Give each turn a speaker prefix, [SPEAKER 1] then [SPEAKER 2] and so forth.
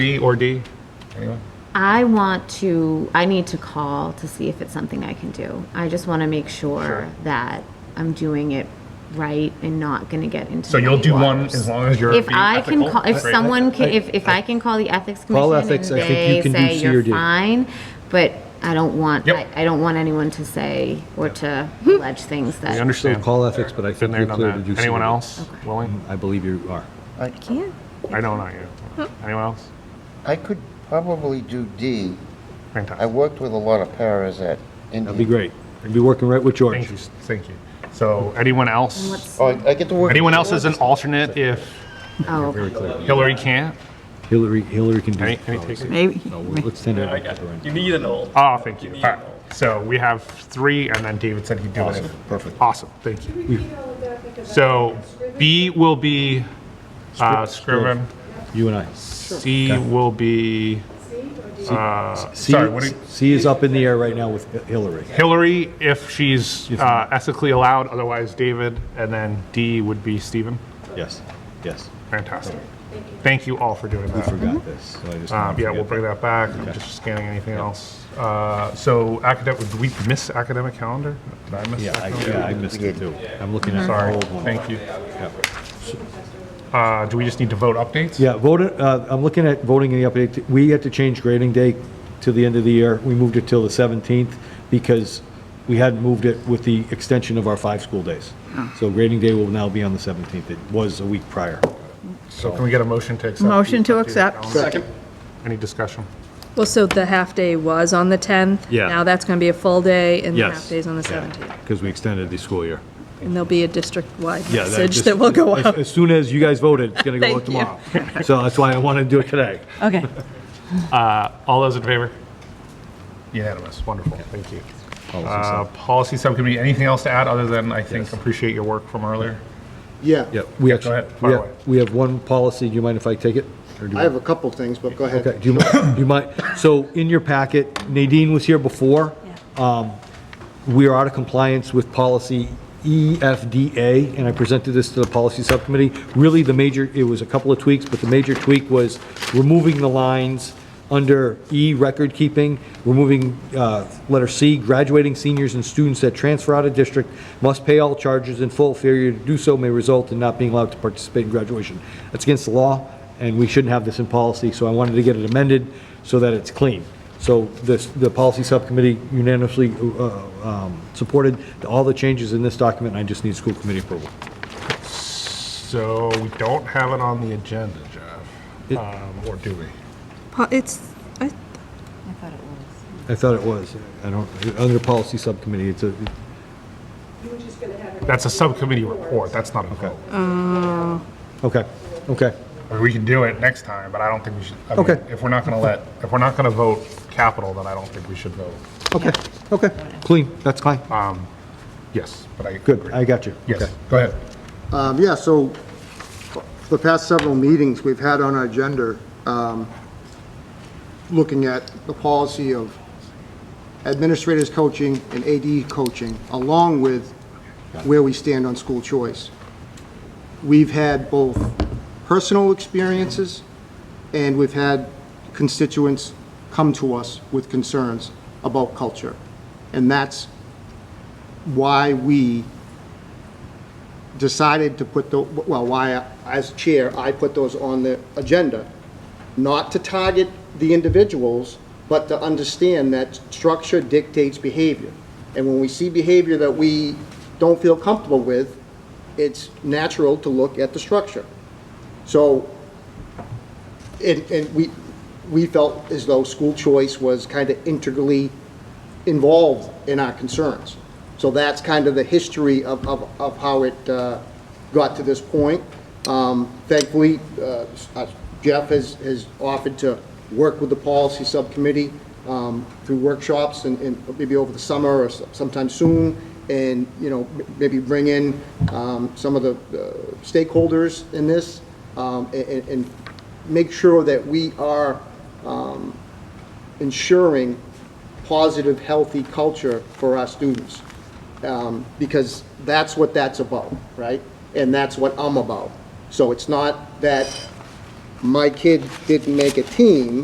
[SPEAKER 1] B or D? Anyone?
[SPEAKER 2] I want to, I need to call to see if it's something I can do. I just want to make sure that I'm doing it right and not going to get into.
[SPEAKER 1] So you'll
[SPEAKER 2] muddy
[SPEAKER 1] do one
[SPEAKER 2] waters.
[SPEAKER 1] as long as you're
[SPEAKER 2] If
[SPEAKER 1] being
[SPEAKER 2] I can
[SPEAKER 1] ethical,
[SPEAKER 2] call, if
[SPEAKER 1] right?
[SPEAKER 2] someone can, if, if I can call the ethics
[SPEAKER 3] Call
[SPEAKER 2] commission and
[SPEAKER 3] ethics, I think
[SPEAKER 2] they
[SPEAKER 3] you can do
[SPEAKER 2] say
[SPEAKER 3] C or
[SPEAKER 2] you're
[SPEAKER 3] D."
[SPEAKER 2] fine, but I don't want, I
[SPEAKER 1] Yep.
[SPEAKER 2] I don't want anyone to say or to allege things
[SPEAKER 1] We
[SPEAKER 2] that.
[SPEAKER 3] Still
[SPEAKER 1] understand.
[SPEAKER 3] call ethics, but I
[SPEAKER 1] Been
[SPEAKER 3] think
[SPEAKER 1] there,
[SPEAKER 3] you're clear to
[SPEAKER 1] done
[SPEAKER 3] do
[SPEAKER 1] that.
[SPEAKER 3] so.
[SPEAKER 1] Anyone else willing?
[SPEAKER 3] I believe you are.
[SPEAKER 4] I,
[SPEAKER 2] Can't.
[SPEAKER 1] I know, not
[SPEAKER 2] Oh.
[SPEAKER 1] you. Anyone else?
[SPEAKER 4] I could probably do D. I
[SPEAKER 1] Fantastic.
[SPEAKER 4] worked with a lot of paras at
[SPEAKER 3] That'd be
[SPEAKER 4] India.
[SPEAKER 3] great. I'd be working right with
[SPEAKER 1] Thank you,
[SPEAKER 3] George.
[SPEAKER 1] thank you. So anyone else?
[SPEAKER 2] What's,
[SPEAKER 4] Oh, I I get to work.
[SPEAKER 1] Anyone else as an alternate if
[SPEAKER 2] oh,
[SPEAKER 3] Very clear.
[SPEAKER 1] Hillary can't?
[SPEAKER 3] Hillary, Hillary can do
[SPEAKER 1] Any,
[SPEAKER 3] it.
[SPEAKER 1] any takers?
[SPEAKER 5] Maybe.
[SPEAKER 3] No, we'll- let's send it
[SPEAKER 6] I
[SPEAKER 3] back
[SPEAKER 6] got
[SPEAKER 3] to Lorraine.
[SPEAKER 6] it. You need an old.
[SPEAKER 1] Oh, thank you.
[SPEAKER 6] You
[SPEAKER 1] All
[SPEAKER 6] need
[SPEAKER 1] right.
[SPEAKER 6] an old.
[SPEAKER 1] So we have three, and then David said he'd do it.
[SPEAKER 3] Awesome. Perfect.
[SPEAKER 1] Awesome, thank you. So B will be uh, Scriven,
[SPEAKER 3] You and I.
[SPEAKER 1] C will be uh,
[SPEAKER 3] C,
[SPEAKER 1] Sorry, what do you-
[SPEAKER 3] C is up in the air right now with Hi- Hillary.
[SPEAKER 1] Hillary if she's uh, ethically allowed, otherwise David, and then D would be Stephen.
[SPEAKER 3] Yes, yes.
[SPEAKER 1] Fantastic. Thank you all for doing
[SPEAKER 3] I
[SPEAKER 1] that.
[SPEAKER 3] forgot this. so I just
[SPEAKER 1] Um,
[SPEAKER 3] wanted to
[SPEAKER 1] Yeah, we'll
[SPEAKER 3] get
[SPEAKER 1] bring that back. I'm just scanning anything else. Uh, So academic, did we miss academic calendar? Did I miss?
[SPEAKER 3] Yeah, I,
[SPEAKER 1] academic?
[SPEAKER 3] yeah, I missed it too. I'm looking at the
[SPEAKER 1] Sorry,
[SPEAKER 3] old one.
[SPEAKER 1] thank you.
[SPEAKER 3] Yeah.
[SPEAKER 1] Uh, Do we just need to vote updates?
[SPEAKER 3] Yeah, vote, uh, I'm looking at voting in the update. We had to change grading day to the end of the year. We moved it till the 17th because we hadn't moved it with the extension of our five school days.
[SPEAKER 7] Oh.
[SPEAKER 3] So grading day will now be on the 17th. It was a week prior.
[SPEAKER 1] So can we get a motion to accept?
[SPEAKER 5] Motion to
[SPEAKER 1] the updated
[SPEAKER 5] accept.
[SPEAKER 1] calendar? Any discussion?
[SPEAKER 7] Well, so the half-day was on the 10th?
[SPEAKER 3] Yeah.
[SPEAKER 7] Now that's going to be a full day, and the
[SPEAKER 3] Yes.
[SPEAKER 7] half-day's on the 17th.
[SPEAKER 3] Because we extended the school year.
[SPEAKER 7] And there'll be a district-wide
[SPEAKER 3] Yeah,
[SPEAKER 7] message
[SPEAKER 3] just-
[SPEAKER 7] that will go
[SPEAKER 3] as-
[SPEAKER 7] out.
[SPEAKER 3] As soon as you guys voted, it's going to go out
[SPEAKER 7] Thank
[SPEAKER 3] tomorrow. So that's why I wanted to do it today.
[SPEAKER 5] Okay.
[SPEAKER 1] All those in favor? Unanimous, wonderful, thank you.
[SPEAKER 3] Policy
[SPEAKER 1] Uh,
[SPEAKER 3] sub.
[SPEAKER 1] Policy Subcommittee, anything else to add other than, I think, appreciate your work from earlier?
[SPEAKER 8] Yeah,
[SPEAKER 3] Yeah, we actually,
[SPEAKER 1] ahead, fire
[SPEAKER 3] we have,
[SPEAKER 1] away.
[SPEAKER 3] we have one policy. Do you mind if I take it? Or do you
[SPEAKER 8] I have a couple things, but go ahead.
[SPEAKER 3] Okay, do you, do you mind, so in your packet, Nadine was here before. Um, We are out of compliance with policy E EFDA, and I presented this to the policy subcommittee. Really, the major, it was a couple of tweaks, but the major tweak was removing the lines under E, record keeping, removing uh, letter C, graduating seniors and students that transfer out of district must pay all charges in full. Failure to do so may result in not being allowed to participate in graduation. That's against the law and we shouldn't have this in policy, so I wanted to get it amended so that it's clean. So this, the policy subcommittee unanimously uh, um, supported all the changes in this document, and I just need school committee approval.
[SPEAKER 1] So we don't have it on the agenda, Jeff, Um, or do we?
[SPEAKER 7] Po- It's, I-
[SPEAKER 3] I thought it was, I don't, under policy subcommittee, it's a,
[SPEAKER 1] That's a subcommittee report, that's not a vote.
[SPEAKER 3] okay, okay,
[SPEAKER 1] I mean, We can do it next time, but I don't think we should. I mean,
[SPEAKER 3] Okay.
[SPEAKER 1] If we're not going to let, if we're not going to vote capital, then I don't think we should vote.
[SPEAKER 3] okay, okay, clean, that's fine,
[SPEAKER 1] Yes, but I.
[SPEAKER 3] good,
[SPEAKER 1] agree.
[SPEAKER 3] I got you.
[SPEAKER 1] Yes,
[SPEAKER 3] Okay.
[SPEAKER 1] go ahead.
[SPEAKER 8] Um, Yeah, so for the past several meetings we've had on our agenda, um, looking at the policy of administrators coaching and AD coaching, along with where we stand on school choice. We've had both personal experiences, and we've had constituents come to us with concerns about culture. And that's why we decided to put the, well, why, I- as chair, I put those on the agenda, not to target the individuals, but to understand that structure dictates behavior. And when we see behavior that we don't feel comfortable with, it's natural to look at the structure. So, and, and we, we felt as though school choice was kind of integrally involved in our concerns. So that's kind of the history of, of, of how it uh, got to this point. Um, Thankfully, uh, uh, Jeff has, has offered to work with the policy subcommittee um, through workshops and, and maybe over the summer or s- sometime soon, and, you know, m- maybe bring in um, some of the uh, stakeholders in this, um, a- and, and make sure that we are um, ensuring positive, healthy culture for our students. Um, Because that's what that's about, right? And that's what I'm about. So it's not that my kid didn't make a team,